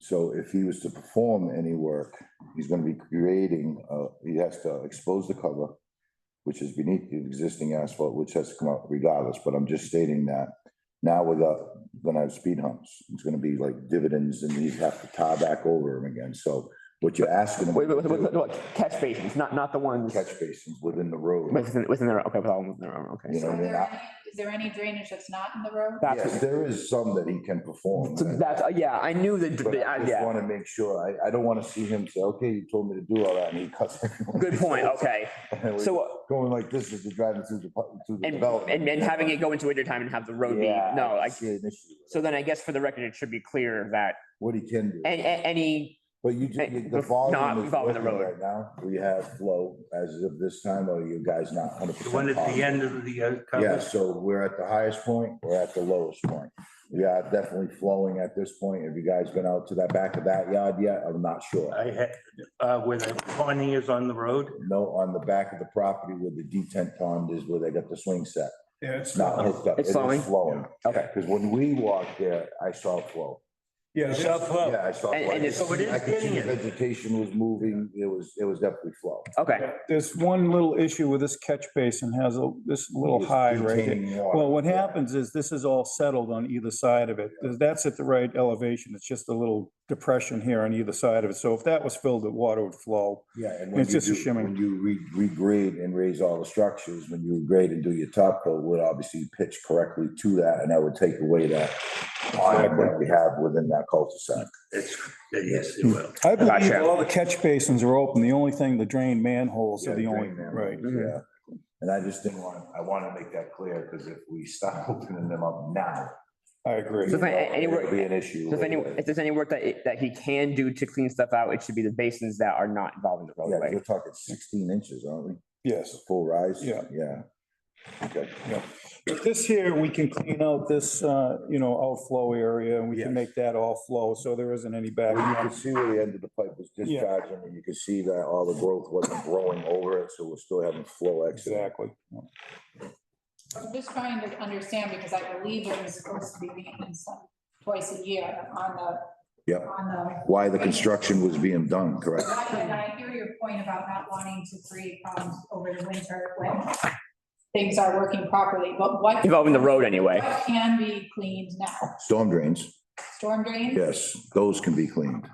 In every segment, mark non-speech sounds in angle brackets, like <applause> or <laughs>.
So if he was to perform any work, he's gonna be creating, uh, he has to expose the cover, which is beneath the existing asphalt, which has to come out regardless, but I'm just stating that now we're go- gonna have speed humps. It's gonna be like dividends and you have to tar back over them again. So what you're asking Wait, them wait, to wait, wait, do, wait, catch basins, not, not the ones catch basins within the road. within, within their, okay, with all within their own, okay. You know, so- Are you're there not- any, is there any drainage that's not in the road? Yes, That's, there is some that he can perform. so that's, uh, yeah, I knew that, But uh, I just yeah, want to make sure. I, I don't want to see him say, okay, you told me to do all that and he cuts. everyone. good <laughs> point, okay. And we're So, uh, Going like this as you're driving through the, pu- through the and, development. and, and having it go into winter time and have the road be, Yeah, no, I like, see an issue with so then I guess for the record, it should be clear that, What he can do. and, any, But you, ju- and you- the not volume is involving the working road. right now. We have flow as of this time, or you guys not hundred The percent. one at the end of the uh, Yeah, cover. so we're at the highest point, we're at the lowest point. We are definitely flowing at this point. Have you guys been out to that back of that yard yet? I'm not sure. I had, uh, where the awning is on the road. No, on the back of the property where the detent pond is where they got the swing set. Yeah, It's not hooked up. It It's is flowing? Flowing. okay. Because when we walked there, I saw flow. Yeah, Shop that's- floor. Yeah, I saw. And- flow. and it's- So it is I could see getting it. vegetation was moving. It was, it was definitely flow. Okay, there's one little issue with this catch basin has a, this little It's high right here. retaining water. Well, what Yeah. happens is this is all settled on either side of it. That's at the right elevation. It's just a little depression here on either side of it. So if that was filled, the water would flow. Yeah, and when It's you just a do- shimmy. When you re- regrade and raise all the structures, when you regrade and do your top coat, would obviously pitch correctly to that, and that would take away that iron that we have within that cul-de-sac. It's, yes, it will. I believe Gotcha. all the catch basins are open. The only thing, the drain manholes Yeah, are the only, drain man right. holes, Yeah, and I just didn't want, I want to make that clear, because if we stop <laughs> opening them up now, I agree. So if I- it'll be anywhere, an issue. so if any, later. if there's any work that, it- that he can do to clean stuff out, it should be the basins that are not involving the Yeah, 'cause roadway. we're talking sixteen inches, aren't we? Yes. Full rise? Yeah. Yeah. Okay. But This here, we can clean out this, uh, you know, outflow area and we can Yes. make that all flow. So there isn't any back. Well, you could see where the end of the pipe was Yeah. discharging, and you could see that all the growth wasn't growing over it, so we're still having flow exit. Exactly. I'm just trying to understand because I believe it was supposed to be maintenance on- twice a year on the. Yep. On the, Why the construction was being done, correct? right, and I hear your point about not wanting to create problems over the winter when things are working properly, but what, Involving the road anyway. what can be cleaned now? Storm drains, Storm drains? yes, those can be cleaned.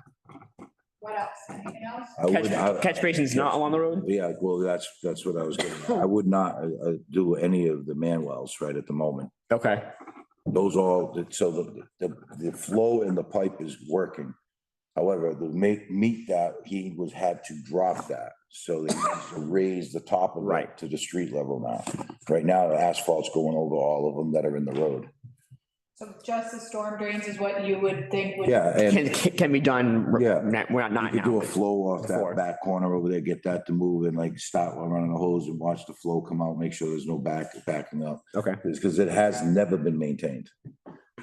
What else? Anything else? I would, Catch, I, catch basins not along the road? yeah, well, that's, that's what I was getting, at. I would not, uh, uh, do any of the manwells right at the moment. Okay, Those all, so the, the, the flow in the pipe is working. However, to make, meet that, he was, had to drop that. So they needs to raise the top of Right. it to the street level now. Right now, the asphalt's going over all of them that are in the road. So just the storm drains is what you would think would. Yeah, and can, can can be done, Yeah. we're not, we're you not could do now. a flow off Before. that back corner over there, get that to move and like stop while running the hose and watch the flow come out, make sure there's no back, backing up. Okay. Because it has never been maintained.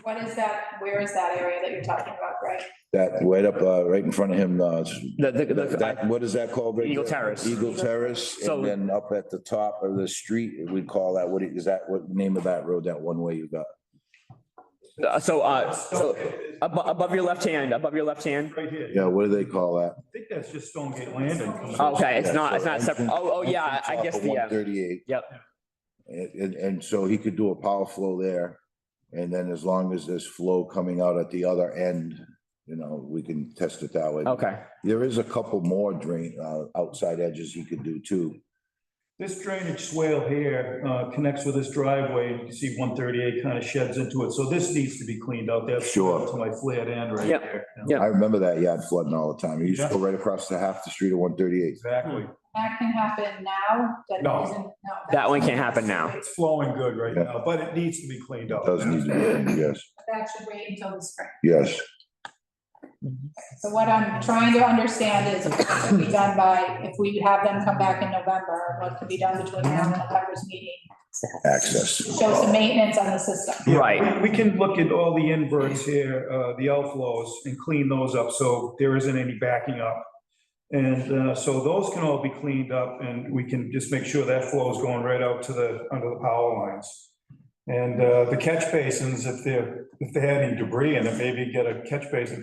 What is that, where is that area that you're talking about, Greg? That right up, uh, right in front of him, uh, The, the, That, the, that- what is that called? right Eagle there? Terrace. Eagle Terrace, So- and then up at the top of the street, we call that, what is that, what name of that road, that one way you got? Uh, So, uh, so above, above your left hand, above your left hand. Right here. Yeah, what do they call that? I think that's just Stonegate Landing. Okay, it's not, it's so not separate. entrance- Oh, oh, yeah, I guess the, uh, Thirty-eight. Yep. And, and, and so he could do a power flow there, and then as long as there's flow coming out at the other end, you know, we can test it that way. okay, There is a couple more drain, uh, outside edges he could do too. This drainage swale here uh, connects with this driveway, and you can see one thirty-eight kind of sheds into it, so this needs to be cleaned out, that's. Sure. To my flared end right Yeah, there. yeah. I remember that yard flooding all the time. He used to go right across the half the street of one thirty-eight. Exactly, That can happen now, that No. isn't, no. that one can't happen now. it's flowing good right Yeah. now, but it needs to be cleaned up. Does need to be, cleaned, yes, That should wait until the spring. yes. So what I'm trying to understand is what can be done by, if we have them come back in November, what can be done between now and November's meeting? Access. Show some maintenance on the system. Yeah, Right. We we can look at all the inverts here, uh, the outflows, and clean those up, so there isn't any backing up. And, uh, so those can all be cleaned up, and we can just make sure that flow is going right out to the, under the power lines. And, uh, the catch basins, if they're, if they had any debris in it, maybe get a catch basin